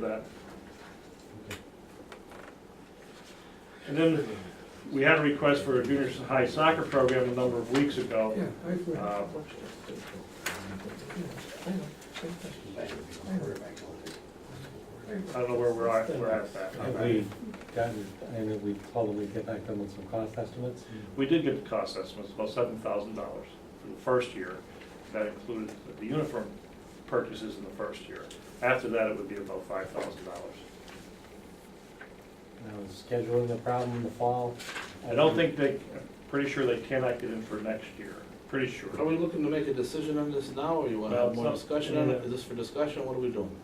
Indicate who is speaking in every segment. Speaker 1: that. And then we had a request for a junior high soccer program a number of weeks ago.
Speaker 2: Yeah, I've read.
Speaker 1: Uh, I don't know where we're at, we're at that.
Speaker 3: Have we gotten, I mean, we told them we'd get back to them with some cost estimates?
Speaker 1: We did get the cost estimates, about seven thousand dollars for the first year. That included the uniform purchases in the first year. After that, it would be about five thousand dollars.
Speaker 3: Now, is scheduling a problem in the fall?
Speaker 1: I don't think they, I'm pretty sure they cannot get in for next year, pretty sure.
Speaker 4: Are we looking to make a decision on this now, or you wanna
Speaker 1: Well,
Speaker 4: have
Speaker 1: it's
Speaker 4: more
Speaker 1: not-
Speaker 4: discussion on it? Is this for discussion, what are we doing?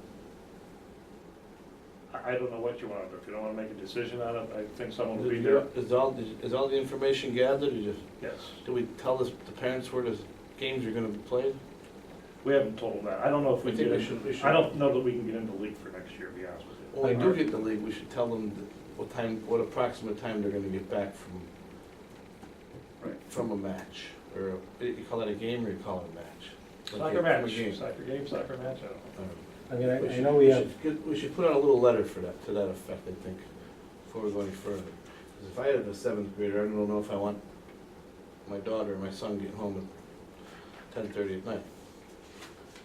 Speaker 1: I, I don't know what you want to do. If you don't want to make a decision on it, I think someone will be there.
Speaker 4: Is all, is all the information gathered, or just,
Speaker 1: Yes.
Speaker 4: do we tell this, the parents where the games are gonna be played?
Speaker 1: We haven't told them that. I don't know if we
Speaker 4: I think
Speaker 1: get,
Speaker 4: we
Speaker 1: in-
Speaker 4: should, we should.
Speaker 1: I don't know that we can get into league for next year, to be honest with you.
Speaker 4: When we do get the league, we should tell them what time, what approximate time they're gonna get back from,
Speaker 1: Right.
Speaker 4: from a match, or, a- you call it a game, or you call it a match? Like
Speaker 1: Soccer
Speaker 4: a- from a
Speaker 1: match,
Speaker 4: game.
Speaker 1: soccer game, soccer match, I don't know.
Speaker 4: Um,
Speaker 3: I mean, I,
Speaker 4: We
Speaker 3: I
Speaker 4: should-
Speaker 3: know we
Speaker 4: we
Speaker 3: have,
Speaker 4: should get- We should put out a little letter for that, to that effect, I think, before we go any further. 'Cause if I had a seventh grader, I don't know if I want my daughter or my son getting home at ten thirty at night.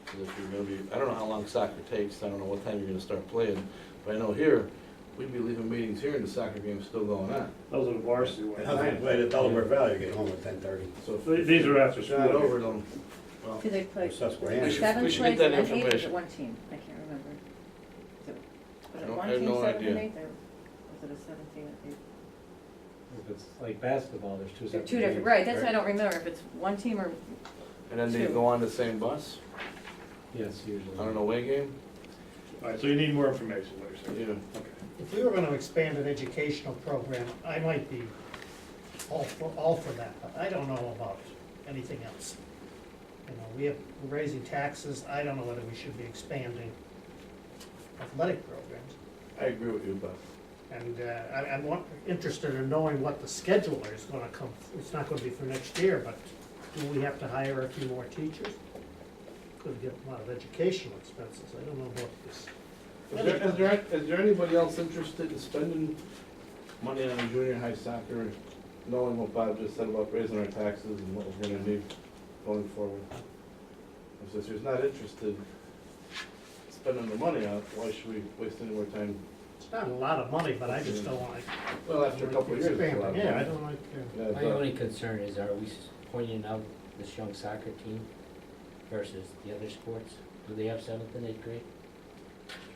Speaker 4: 'Cause if you're gonna be, I don't know how long soccer takes, I don't know what time you're gonna start playing, but I know here, we'd be leaving meetings here and the soccer game's still going on,
Speaker 1: Those are the varsity
Speaker 5: And I
Speaker 1: ones.
Speaker 5: played at Delaware Valley, get home at ten thirty,
Speaker 4: so. if-
Speaker 1: Th- These are after
Speaker 4: It's not
Speaker 1: school.
Speaker 4: over them, well,
Speaker 6: Do they play
Speaker 4: We
Speaker 5: Susquehanna.
Speaker 4: should-
Speaker 6: seven
Speaker 4: we
Speaker 6: plays
Speaker 4: should get
Speaker 6: and
Speaker 4: that
Speaker 6: then eight, or is
Speaker 4: information.
Speaker 6: it one team? I can't remember. Is it-
Speaker 4: I
Speaker 6: Was it
Speaker 4: don't-
Speaker 6: one
Speaker 4: I have
Speaker 6: team,
Speaker 4: no
Speaker 6: seven and
Speaker 4: idea.
Speaker 6: eight, or was it a seven team and eight?
Speaker 3: if it's like basketball, there's two
Speaker 6: They're
Speaker 3: separate.
Speaker 6: two different,
Speaker 3: games,
Speaker 6: right, that's why I don't remember if it's one team or,
Speaker 4: and then they
Speaker 6: Two.
Speaker 4: go on the same bus,
Speaker 3: Yes, usually.
Speaker 4: on an away game,
Speaker 1: All right, so you need more information, what you're saying.
Speaker 4: you know.
Speaker 7: If we were gonna expand an educational program, I might be all for, all for that, but I don't know about anything else. You know, we have, we're raising taxes, I don't know whether we should be expanding athletic programs.
Speaker 4: I agree with you, but
Speaker 7: And, uh, I, I'm wa- interested in knowing what the scheduler is gonna come, it's not gonna be for next year, but do we have to hire a few more teachers? Could get a lot of educational expenses, I don't know about this.
Speaker 4: Is there, is there, is there anybody else interested in spending money on junior high soccer, knowing what Bob just said about raising our taxes and what we're gonna need going forward? If this is not interested in spending the money on, it, why should we waste any more time?
Speaker 7: It's not a lot of money, but I just don't like.
Speaker 4: Well, after a couple of years, it's a lot of money.
Speaker 7: Yeah, I don't like, uh,
Speaker 4: Yeah,
Speaker 8: My
Speaker 4: but-
Speaker 8: only concern is, are we s- pointing out this young soccer team versus the other sports? Do they have seventh and eighth grade?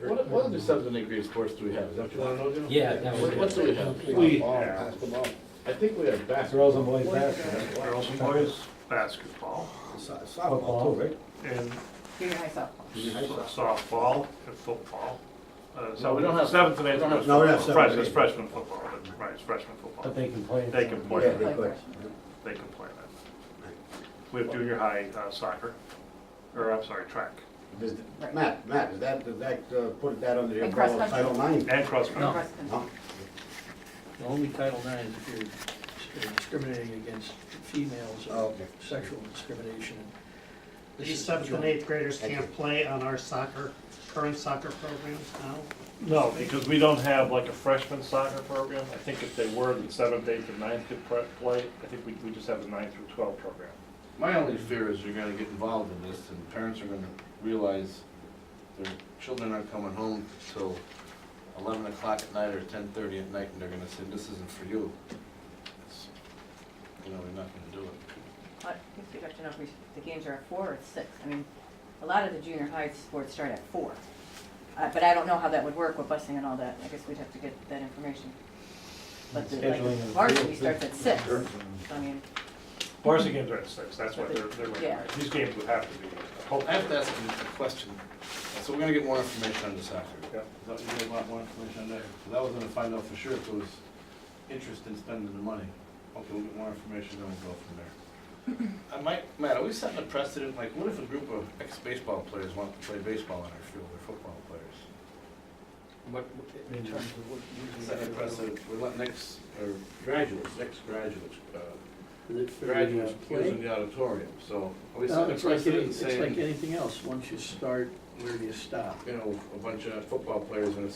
Speaker 4: What, what other seventh and eighth grade sports do we have? Is that what you wanna know, Jim?
Speaker 8: Yeah, that
Speaker 4: What, what
Speaker 8: was,
Speaker 4: do we have?
Speaker 1: We-
Speaker 5: Ball, Basketball,
Speaker 4: I think we have
Speaker 3: It's
Speaker 4: basketball.
Speaker 3: girls and boys basketball.
Speaker 1: Girls and boys basketball
Speaker 5: so-
Speaker 3: Football.
Speaker 5: softball too, right?
Speaker 1: and
Speaker 6: junior high softball.
Speaker 5: Junior high softball.
Speaker 1: softball and football. Uh,
Speaker 4: No, we don't have-
Speaker 1: Seventh and eighth.
Speaker 4: we don't have-
Speaker 5: No, we don't have
Speaker 1: Fresh-
Speaker 5: seventh and
Speaker 1: It's
Speaker 5: eighth.
Speaker 1: freshman football, but- right, it's freshman
Speaker 3: But
Speaker 1: football.
Speaker 3: they can play.
Speaker 1: They can play.
Speaker 5: Yeah, they could.
Speaker 1: They can play that. We have junior high uh, soccer, or I'm sorry, track,
Speaker 5: Does- Matt, Matt, does that, does that, uh, put that under the
Speaker 6: And cross
Speaker 5: umbrella of
Speaker 6: country.
Speaker 5: Title IX?
Speaker 1: and cross country.
Speaker 6: Cross country.
Speaker 5: No?
Speaker 9: The Only Title IX if you're you're discriminating against females
Speaker 5: Oh,
Speaker 9: or
Speaker 5: okay.
Speaker 9: sexual discrimination. This
Speaker 7: These
Speaker 9: is
Speaker 7: seventh and
Speaker 9: joint.
Speaker 7: eighth graders
Speaker 5: Thank
Speaker 7: can't play on our soccer, current soccer programs now?
Speaker 1: No, because we don't have like a freshman soccer program. I think if they were, the seventh, eighth, and ninth could pre- play. I think we, we just have the ninth through twelve program.
Speaker 4: My only fear is you're gonna get involved in this, and parents are gonna realize their children aren't coming home till eleven o'clock at night or ten thirty at night, and they're gonna say, this isn't for you. It's- You know, we're not gonna do it.
Speaker 6: I guess we'd have Uh, to know if we, the games are at four or at six. I mean, a lot of the junior high sports start at four. Uh, but I don't know how that would work with busing and all that. I guess we'd have to get that information. But the, like,
Speaker 3: Scheduling and-
Speaker 6: varsity starts at six.
Speaker 5: Sure.
Speaker 6: I mean,
Speaker 1: Varsity games are at six, that's what they're, they're recommending. These games would have to be,
Speaker 4: I have to
Speaker 1: hopefully.
Speaker 4: ask you a question, so we're gonna get more information on this after.
Speaker 1: Yeah.
Speaker 4: Is that, you want more information on that? 'Cause I was gonna find out for sure if there was interest in spending the money. Okay, we'll get more information, then we'll go from there. I might, Matt, are we setting a precedent, like, what if a group of ex-baseball players want to play baseball on our field, or football players?
Speaker 9: What, what- in terms of what.
Speaker 4: Setting a precedent, we're letting ex, or graduates, ex-graduates, uh,
Speaker 9: Is it-
Speaker 4: graduates using the auditorium, so are we
Speaker 9: No,
Speaker 4: setting a
Speaker 9: it's like, any-
Speaker 4: precedent
Speaker 9: it's like
Speaker 4: saying?
Speaker 9: anything else, once you start where do you stop?
Speaker 4: you know, a bunch of football players in a